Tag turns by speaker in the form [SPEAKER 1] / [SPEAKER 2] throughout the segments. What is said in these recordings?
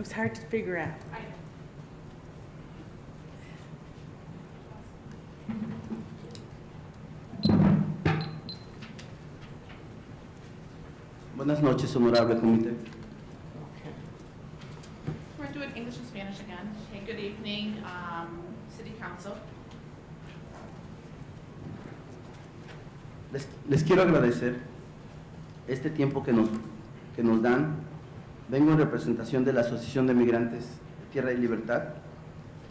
[SPEAKER 1] It was hard to figure out.
[SPEAKER 2] Buenas noches, honorable comité.
[SPEAKER 3] We're doing English and Spanish again. Okay, good evening, um, City Council.
[SPEAKER 2] Les, les quiero agradecer este tiempo que nos, que nos dan. Vengo en representación de la Asociación de Migrantes Tierra y Libertad.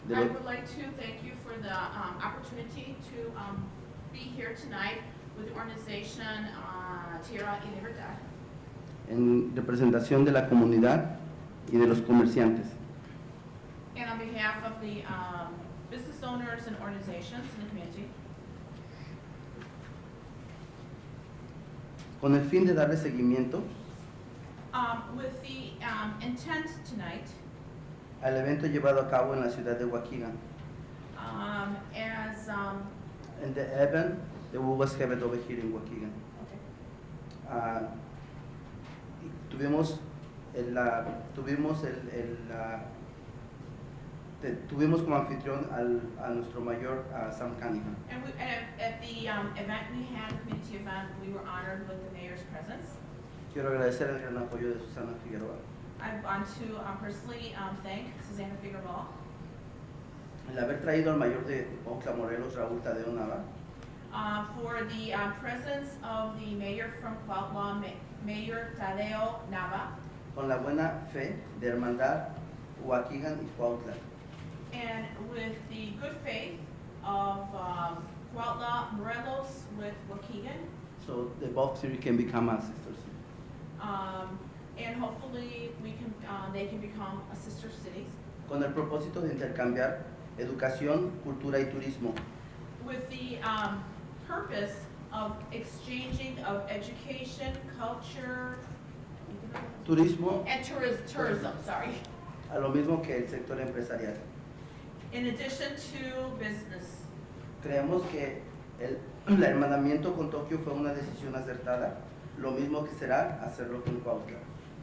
[SPEAKER 2] de
[SPEAKER 3] I
[SPEAKER 2] lo-
[SPEAKER 3] would like to thank you for the um, opportunity to um, be here tonight with the organization uh, Tierra y Libertad
[SPEAKER 2] en representación de la comunidad y de los comerciantes.
[SPEAKER 3] and on behalf of the um, business owners and organizations in the community
[SPEAKER 2] Con el fin de darle seguimiento
[SPEAKER 3] um, with the um, intent tonight
[SPEAKER 2] al evento llevado a cabo en la ciudad de Waukegan,
[SPEAKER 3] um, as, um,
[SPEAKER 2] en the event that was held over here in Waukegan. Ah, y tuvimos el, ah, tuvimos el, el, ah, te- tuvimos como anfitrión al, a nuestro mayor ah, Sam Cunningham.
[SPEAKER 3] and we, at, at the um, event we had, community event, we were honored with the mayor's presence.
[SPEAKER 2] Quiero agradecer el gran apoyo de Susana Figueroa.
[SPEAKER 3] I want to um, personally um, thank Susanna Figueroa
[SPEAKER 2] El haber traído al mayor de Ocla Morelos, Raúl Tadeo Nava,
[SPEAKER 3] uh, for the uh, presence of the mayor from Cuautla, Ma- Mayor Tadeo Nava,
[SPEAKER 2] con la buena fe de hermandad Huaquigan y Cuautla,
[SPEAKER 3] and with the good faith of um, Cuautla Morelos with Waukegan,
[SPEAKER 2] so the both three can become our sisters.
[SPEAKER 3] um, and hopefully we can, uh, they can become a sister cities,
[SPEAKER 2] Con el propósito de intercambiar educación, cultura y turismo
[SPEAKER 3] with the um, purpose of exchanging of education, culture,
[SPEAKER 2] turismo
[SPEAKER 3] and tourism, tourism, sorry.
[SPEAKER 2] a lo mismo que el sector empresarial.
[SPEAKER 3] In addition to business,
[SPEAKER 2] Creemos que el, el hermanamiento con Tokio fue una decisión acertada, lo mismo que será hacerlo con Cuautla.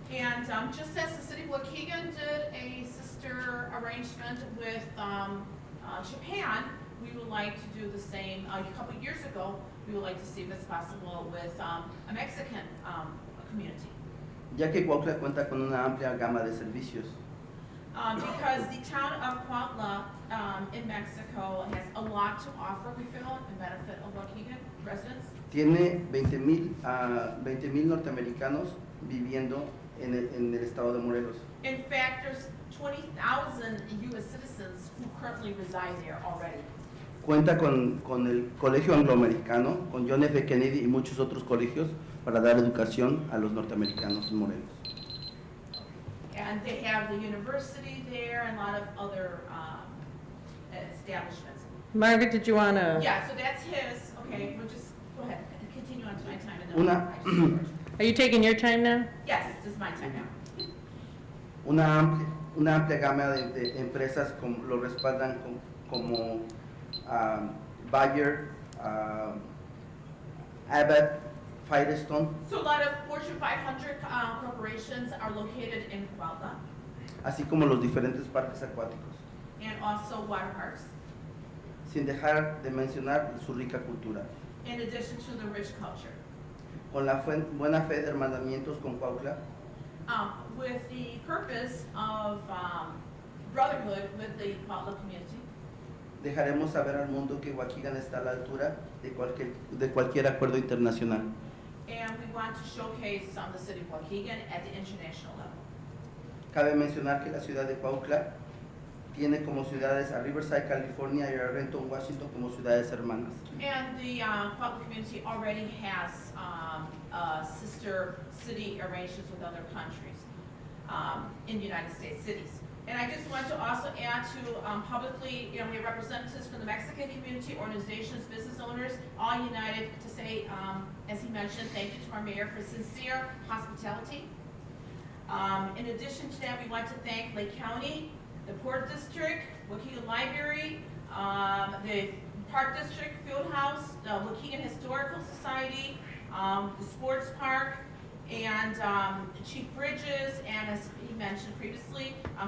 [SPEAKER 3] and um, just as the city of Waukegan did a sister arrangement with um, uh, Japan, we would like to do the same, uh, a couple years ago, we would like to see if it's possible with um, a Mexican um, community.
[SPEAKER 2] ya que Cuautla cuenta con una amplia gama de servicios,
[SPEAKER 3] Um, Because the town of Cuautla um, in Mexico has a lot to offer, we feel, and benefit of Waukegan residents.
[SPEAKER 2] tiene 20.000 mil ah, norteamericanos viviendo en el, en el estado de Morelos.
[SPEAKER 3] In fact, there's 20,000 U.S. citizens who currently reside there already.
[SPEAKER 2] Cuenta con, con el Colegio Angloamericano, con John F. Kennedy y muchos otros colegios para dar educación a los norteamericanos en Morelos.
[SPEAKER 3] And they have the university there and a lot of other um, establishments.
[SPEAKER 1] Margaret, did you want to,
[SPEAKER 3] Yeah, so that's his, okay, we'll just, go ahead, continue on to my time. and then-
[SPEAKER 2] Una-
[SPEAKER 3] I just-
[SPEAKER 1] are you taking your time now?
[SPEAKER 3] Yes, this is my time now.
[SPEAKER 2] una amplia, una amplia gama de, de empresas como, lo respaldan com- como ah, Bayer, ah, Abbott, Firestone,
[SPEAKER 3] So a lot of Fortune 500 uh, corporations are located in Cuautla
[SPEAKER 2] así como los diferentes parques acuáticos,
[SPEAKER 3] and also water parks,
[SPEAKER 2] sin dejar de mencionar su rica cultura.
[SPEAKER 3] in addition to the rich culture.
[SPEAKER 2] Con la fuen- buena fe de hermanamientos con Cuautla,
[SPEAKER 3] Um, With the purpose of um, brotherhood with the Cuautla community,
[SPEAKER 2] dejaremos saber al mundo que Huaquigan está a la altura de cualquier, de cualquier acuerdo internacional.
[SPEAKER 3] and we want to showcase um, the city of Waukegan at the international level.
[SPEAKER 2] Cabe mencionar que la ciudad de Cuautla tiene como ciudades a Riverside, California y a Renton, Washington como ciudades hermanas.
[SPEAKER 3] And the uh, Pueblo community already has um, uh, sister city arrangements with other countries um, in United States cities. And I just want to also add to um, publicly, you know, we have representatives from the Mexican community, organizations, business owners, all united to say, um, as he mentioned, thank you to our mayor for sincere hospitality. Um, In addition to that, we want to thank Lake County, the Port District, Waukegan Library, um, the Park District Field House, the Waukegan Historical Society, um, the Sports Park, and um, Chief Bridges, and as he mentioned previously, um,